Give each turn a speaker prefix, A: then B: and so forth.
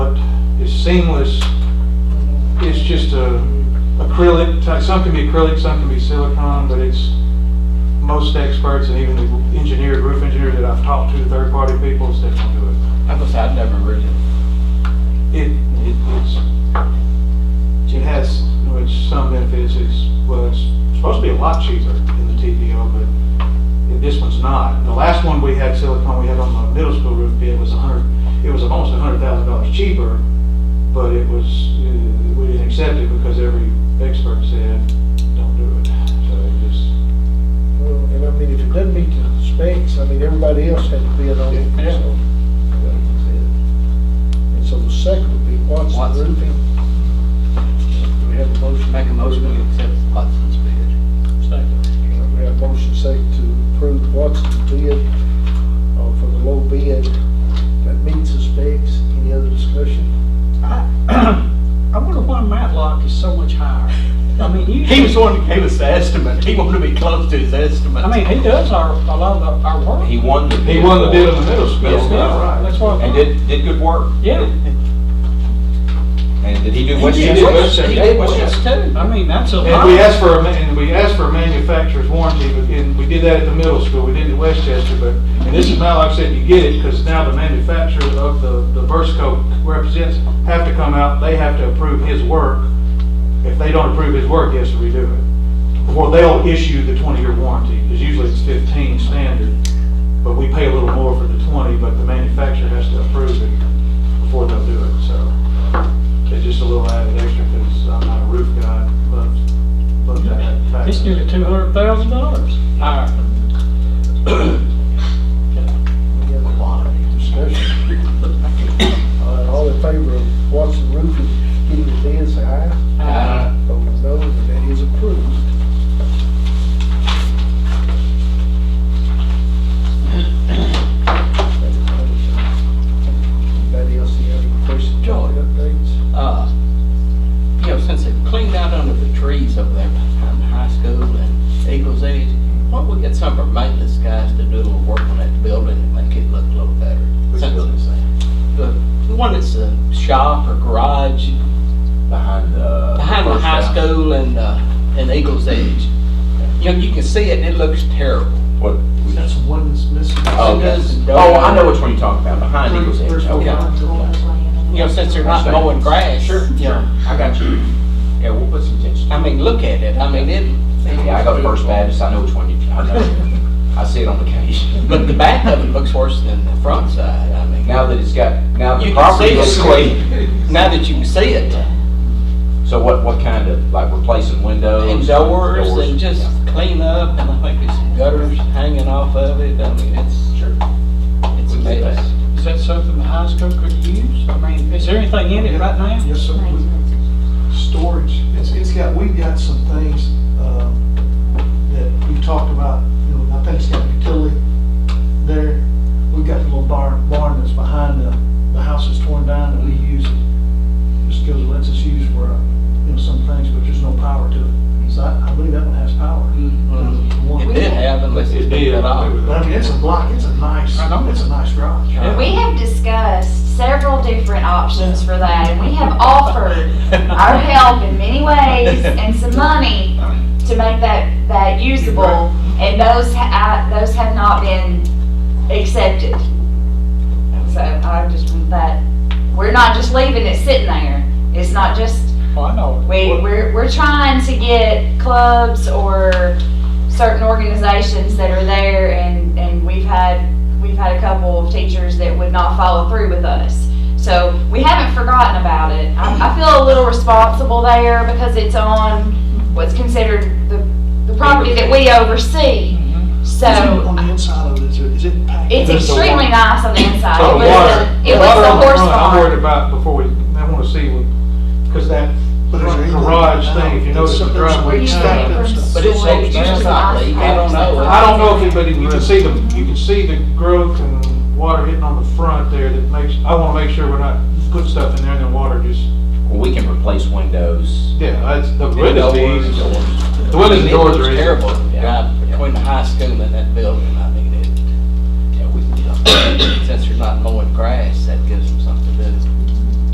A: seamless. It's just a acrylic, type- some can be acrylic, some can be silicone, but it's, most experts and even the engineer, roof engineers that I've talked to, third-party people, said don't do it.
B: I was, I've never read it.
A: It, it, it's, it has, you know, it's some benefits, it's, well, it's supposed to be a lot cheaper than the TPO, but this one's not. The last one we had silicone, we had on the middle school roof bid was a hundred, it was almost a hundred thousand dollars cheaper, but it was, uh, we didn't accept it because every expert said, don't do it. So it just,
C: Well, and I mean, if it doesn't meet the specs, I mean, everybody else had to bid on it,
B: Yeah.
C: so. And so the second would be Watson
B: Watson.
C: Roofing. Do we have a motion?
B: Make a motion to accept Watson's bid.
C: We have a motion second to approve Watson's bid, uh, for the low bid that meets the specs. Any other discussion?
D: I wonder why Matlock is so much higher. I mean,
B: He was the
D: usually,
B: one that gave us the estimate. He wanted to be close to his estimate.
D: I mean, he does our, a lot of the- our work.
E: He won the bid.
A: he won the
E: for
A: bid
E: it.
A: on the middle school.
E: Yes, he did.
A: all right.
D: That's what.
E: And did, did good work.
D: Yeah.
E: And did he do
D: He
E: what
D: did
E: you
A: did
E: did?
D: West-
A: Westchester.
D: he
A: He
D: did
A: did
D: West too. I mean, that's a lot.
A: And we asked for, a ma- and we asked for a manufacturer's warranty, but, and we did that at the middle school, we did it at Westchester, but, and this is now, like I said, you get it, because now the manufacturer of the, the burst coat represents, have to come out, they have to approve his work. If they don't approve his work, he has to redo it. Or they'll issue the twenty-year warranty, because usually it's fifteen standard, but we pay a little more for the twenty, but the manufacturer has to approve it before they'll do it, so. It's just a little added extra, because I'm not a roof guy, loves Look at that.
D: It's nearly two hundred thousand dollars higher.
C: Any other Discussion. All right, All in favor of Watson Roofing getting the bid, say aye.
B: Uh,
C: Opposed, no, and that is approved. Anybody else have any questions, or
B: Joy.
C: updates?
B: uh, you know, since they've cleaned out under the trees over there behind the high school and Eagles Edge, why don't we get some of our maintenance guys to do a little work on that building and make it look a little better?
E: Which
B: Since-
E: building's that?
B: The the one that's a shop or garage
E: Behind the.
B: behind the
E: first
B: high
E: house.
B: school and, uh, and Eagles Edge. You know, you can see it and it looks terrible.
E: What?
D: That's one that's missing.
E: Oh,
B: It
E: yes.
B: does and
E: Oh, I know
B: does.
E: which one you're talking about, behind Eagles Edge. Okay.
B: You know, since they're not mowing grass.
E: Sure, sure, I got you. Yeah, we'll put some attention.
B: I mean, look at it. I mean, it.
E: Yeah, I go to First Baptist, I know which one you, I know. I see it on occasion.
B: But the back of it looks worse than the front side. I mean,
E: Now that it's got,
B: You
E: now the
B: can
E: property
B: see
E: is
B: it.
E: clean.
B: now that you can see it,
E: So what, what kind of, like replacing windows?
B: and doors and just
E: Yeah.
B: clean up and I think there's some gutters hanging off of it. I mean, it's,
E: Sure.
B: it's a
E: We can do
B: mess.
E: that.
D: Is that something the high school could use? I mean, is there anything in it right now?
F: Yes, sir. Storage, it's, it's got, we've got some things, um, that we've talked about, you know, I think it's got a utility there. We've got the little barn, barn that's behind the, the house that's torn down that we use. Just goes, lets us use for, uh, you know, some things, but there's no power to it. So I, I believe that one has power. The one-
E: Mm-hmm.
B: It did have unless it
A: It
B: did
A: did,
B: it
A: I
B: off.
A: believe.
F: But I mean, it's a block, it's a nice,
D: I know.
F: it's a nice garage.
B: Yeah.
G: We have discussed several different options for that, and we have offered our help in many ways and some money to make that, that usable, and those, ha- I- those have not been accepted. And so I just, but we're not just leaving it sitting there. It's not just
D: Well, I know.
G: we, we're, we're trying to get clubs or certain organizations that are there and, and we've had, we've had a couple of teachers that would not follow through with us. So we haven't forgotten about it. I, I feel a little responsible there because it's on what's considered the, the property that we oversee.
D: Mm-hmm.
G: So
F: On the inside of it, is it, is it packed?
G: it's
A: There's the water.
G: extremely nice on the inside.
A: So the
G: It was
A: water,
G: a-
A: the water
G: It was a
A: on the
G: horse
A: front, I'm worried
G: farm.
A: about before we, I want to see, because that
F: But there's
A: front
F: a-
A: garage thing, if you notice the
F: There's- there's
A: driveway.
F: weeds stacked up and stuff.
B: But it's so damn not leak, I don't know.
A: I don't know if it, but you can see the, you can see the growth and water hitting on the front there that makes, I want to make sure we're not putting stuff in there and then water just,
E: Well, we can replace windows.
A: yeah, that's, the
E: and
A: windows,
E: doors and
A: the
E: doors.
A: windows and
B: It
A: doors
B: looks
A: are. in.
B: terrible,
E: Yeah.
B: right, between the high school and that building. I mean, it, yeah, we, since they're not mowing grass, that gives them